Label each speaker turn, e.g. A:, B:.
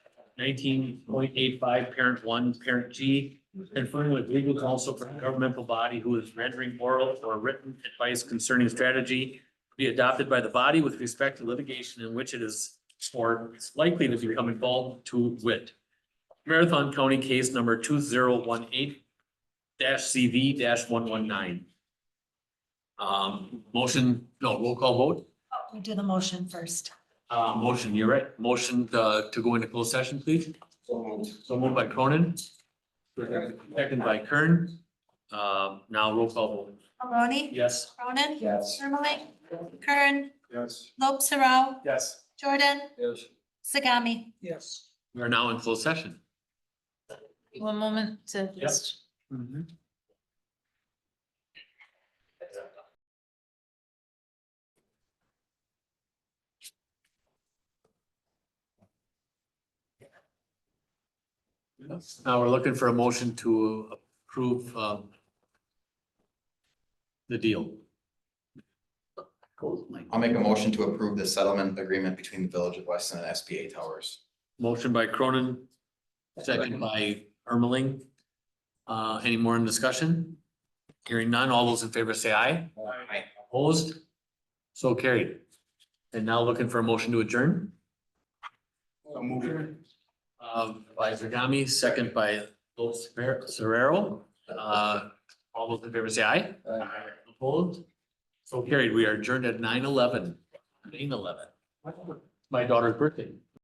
A: nineteen point eight five, parent one, parent G, confirming with legal counsel for a governmental body who is rendering oral or written advice concerning strategy to be adopted by the body with respect to litigation in which it is or is likely to become involved to wit. Marathon County case number two zero one eight CV one one nine. Um, motion, no, roll call vote.
B: We Oh, do the motion first.
A: Uh, motion, you're right. Motion, uh, to go into closed session, please. So moved by Cronin. Second by Kern. Um, now roll call vote.
B: Maloney?
A: Yes.
B: Cronin?
C: Yes.
B: Ermeling? Kern?
C: Yes.
B: Lobe Sarau?
C: Yes.
B: Jordan?
C: Yes.
B: Sagami?
C: Yes.
A: We are now in closed session.
B: One moment uh, to
A: just- Now we're looking for a motion to approve, um, the deal.
D: I'll make a motion to approve the settlement agreement between the Village of Weston and SBA Towers.
A: Motion by Cronin, second by Ermeling. Uh, any more in discussion? Hearing none, all those in favor say aye.
D: Aye.
A: Opposed? So carried. And now looking for a motion to adjourn, uh, by Zagami, second by Los Serrero. Uh, all those in favor say aye. Opposed? So carried. We are adjourned at nine eleven. Nine eleven. My daughter's birthday.